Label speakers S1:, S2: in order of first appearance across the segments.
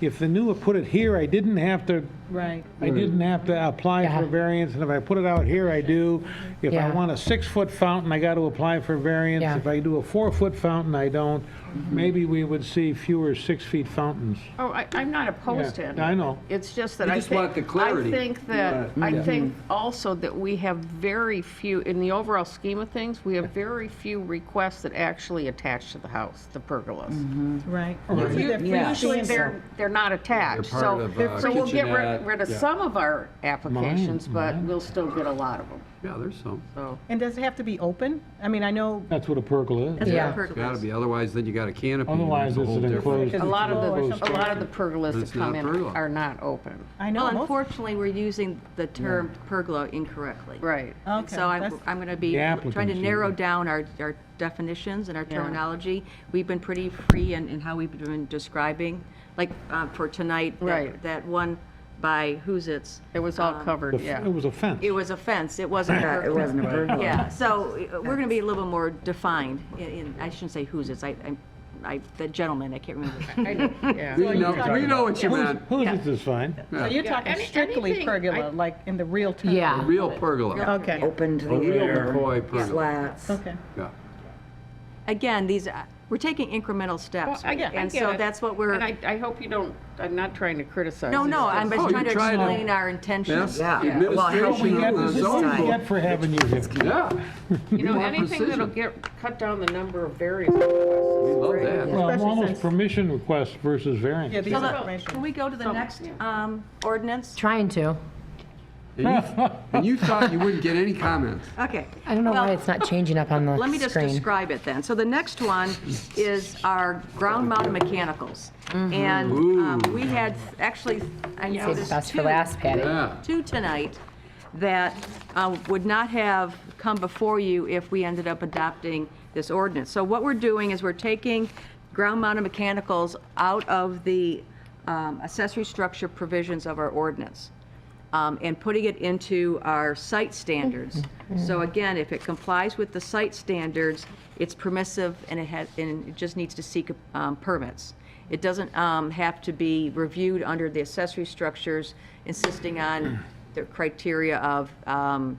S1: if the newer put it here, I didn't have to,
S2: Right.
S1: I didn't have to apply for a
S3: Yeah.
S1: variance, and if I put it out here, I do. If I
S3: Yeah.
S1: want a six-foot fountain, I got to apply for variance.
S3: Yeah. Mm-hmm.
S1: If I do a four-foot fountain, I don't. Maybe we would see fewer six-feet fountains.
S2: Oh, I, I'm not opposed to
S1: Yeah,
S2: it.
S1: I know.
S2: It's just that
S4: You
S2: I
S4: just
S2: think.
S4: want the clarity.
S2: I think that,
S4: Right.
S2: I
S4: Yeah.
S2: think also that we have very few, in the overall scheme of things, we have very few requests that actually attach to the house, the pergolas.
S5: Right.
S2: You-
S3: Yeah.
S2: Usually, they're, they're not attached,
S4: Mm-hmm. They're
S2: so,
S4: part of, uh,
S2: so we'll get rid-
S4: kitchenette.
S2: rid of
S4: Yeah.
S2: some of our applications, but we'll still get a lot of them,
S4: Yeah, there's some.
S2: so.
S5: And does it have to be open? I mean, I know
S1: That's what a pergola is.
S3: Yeah.
S4: It's gotta be, otherwise then you got a canopy. and
S1: Otherwise,
S4: there's
S1: it's
S4: a
S1: an
S4: whole different-
S1: enclosed.
S2: A lot of
S5: Or
S2: the, a
S5: something.
S2: lot of the pergolas that
S4: It's
S2: come
S4: not
S2: in
S4: pergola.
S2: are not open.
S5: I
S6: Well,
S5: know most,
S6: unfortunately, we're using the term pergola incorrectly.
S2: Right.
S6: And
S5: Okay,
S6: So I'm,
S5: that's-
S6: I'm going to be
S1: The
S6: trying to
S1: applicant's
S6: narrow
S1: using-
S6: down our, our definitions and our
S2: Yeah.
S6: terminology. We've been pretty free in, in how we've been describing, like, uh, for tonight. that-
S2: Right.
S6: That one by who's it's.
S2: It was
S6: Um,
S2: all covered, yeah.
S1: It was a fence.
S6: It was a fence, it wasn't a
S3: It
S6: pergola.
S3: wasn't a burglar.
S6: Yeah, so uh, we're going to be a little bit more defined in- in, I shouldn't say who's it's, I, I'm- I, the gentleman, I can't remember.
S2: Yeah.
S4: We know, we know what you meant.
S1: Whose is this fine?
S5: so you're talking
S2: any-
S5: strictly
S2: anything- I-
S5: pergola, like in the real term?
S3: Yeah.
S4: Real pergola.
S5: Okay,
S3: Open to
S4: A
S3: the
S4: real
S3: air,
S4: McCoy pergola.
S3: flats.
S5: okay.
S4: Yeah.
S6: Again, these, uh, we're taking incremental steps.
S2: Well, I- I
S6: And
S2: get
S6: so
S2: it.
S6: that's what we're.
S2: And I, I hope you don't, I'm not trying to criticize.
S6: No,
S2: it's
S6: no, I'm
S2: just-
S6: just
S4: Oh,
S6: trying to
S4: you're trying to-
S6: explain our intentions.
S4: Best
S3: Yeah. Yeah. Well, how
S1: We
S4: administration
S1: get,
S4: of
S3: this
S4: the
S1: this
S3: is
S1: is what we
S3: decided.
S4: zone.
S1: get for having you here.
S4: Yeah,
S2: You know,
S4: want
S2: anything that'll
S4: precision.
S2: get, cut down the number of various requests.
S4: we love that.
S1: Well,
S5: Especially
S1: almost
S5: since-
S1: permission requests versus variance.
S5: Yeah, these
S6: So
S5: are
S6: the-
S5: information.
S6: Can we go to the
S2: So,
S6: next
S2: yeah.
S6: um, ordinance?
S3: Trying to.
S4: And you- And you thought you wouldn't get any comments.
S6: Okay.
S3: I don't know why
S6: Well,
S3: it's not changing up on the
S6: Let me just
S3: screen.
S6: describe it then. So the next one is our ground mounted mechanicals.
S3: Mm-hmm.
S6: And um,
S4: Ooh.
S6: we had, actually, I know
S3: Save the
S6: there's
S3: best for
S6: two-
S3: last, Patty.
S4: Yeah.
S6: two tonight that uh, would not have come before you if we ended up adopting this ordinance. So what we're doing is we're taking ground-mounted mechanicals out of the um, accessory structure provisions of our ordinance um, and putting it into our site standards. So again, if it complies with the site standards, it's permissive and it has, and it just needs to seek um, permits. It doesn't um, have to be reviewed under the accessory structures insisting on the criteria of um,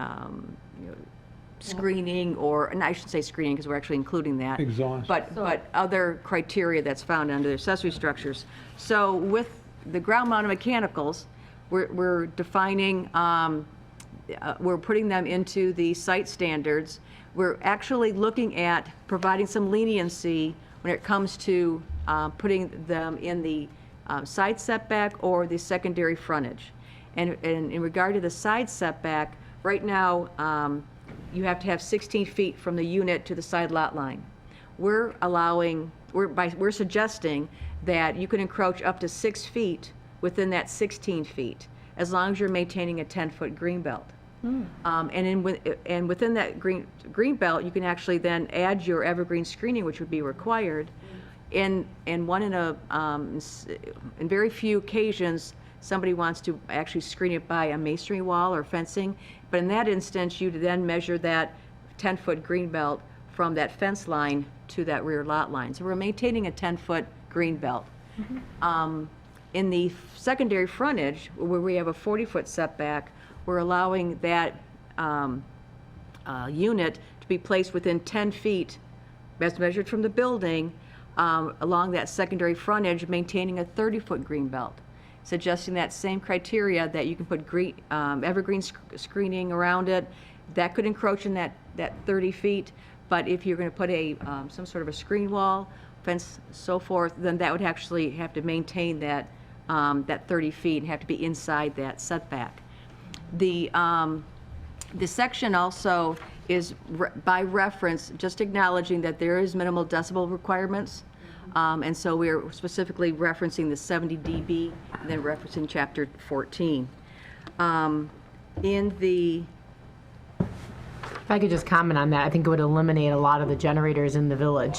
S6: um, you know, screening or, and I should say screening because we're actually including that.
S1: Exhaust.
S6: But, but other criteria that's found under accessory structures. So with the ground mounted mechanicals, we're, we're defining, um, uh, we're putting them into the site standards. We're actually looking at providing some leniency when it comes to uh, putting them in the um, side setback or the secondary frontage. And, and in regard to the side setback, right now, um, you have to have 16 feet from the unit to the side lot line. We're allowing, we're, by, we're suggesting that you can encroach up to six feet within that 16 feet, as long as you're maintaining a 10-foot green belt. Um, and in, wi- and within that green, green belt, you can actually then add your evergreen screening, which would be required. And, and one in a, um, s- in very few occasions, somebody wants to actually screen it by a masonry wall or fencing. But in that instance, you then measure that 10-foot green belt from that fence line to that rear lot line. So we're maintaining a 10-foot green belt. Um, In the secondary frontage, where we have a 40-foot setback, we're allowing that um, uh, unit to be placed within 10 feet, as measured from the building, um, along that secondary frontage, maintaining a 30-foot green belt, suggesting that same criteria that you can put green, um, evergreen sc- screening around it. That could encroach in that, that 30 feet, but if you're going to put a, um, some sort of a screen wall, fence, so forth, then that would actually have to maintain that, um, that 30 feet and have to be inside that setback. The, um, the section also is re- by reference, just acknowledging that there is minimal decibel requirements. Um, And so we're specifically referencing the 70 dB, and then referencing chapter 14. Um, In the,
S3: If I could just comment on that, I think it would eliminate a lot of the generators in the village.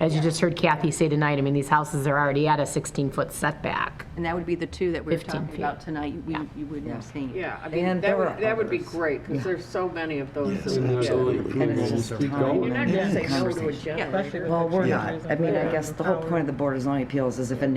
S3: As you just heard Kathy say tonight, I mean, these houses are already at a 16-foot setback.
S6: and that would be the two that we we're
S3: 15
S6: talking
S3: feet.
S6: about tonight, you- you you wouldn't have seen.
S2: Yeah, I mean,
S3: And
S2: that
S3: there
S2: would,
S3: are
S2: that would be great, because there's so many of those. that we get.
S3: And it's just
S2: You're
S3: time.
S2: not gonna say no to a
S7: Conversation.
S2: generator.
S5: Especially with
S7: Well,
S5: the
S7: we're
S5: changes
S7: not. I
S5: and
S7: mean, I
S5: the
S7: guess the whole
S5: power.
S7: point of the Board of Zoning Appeals is if a neighbor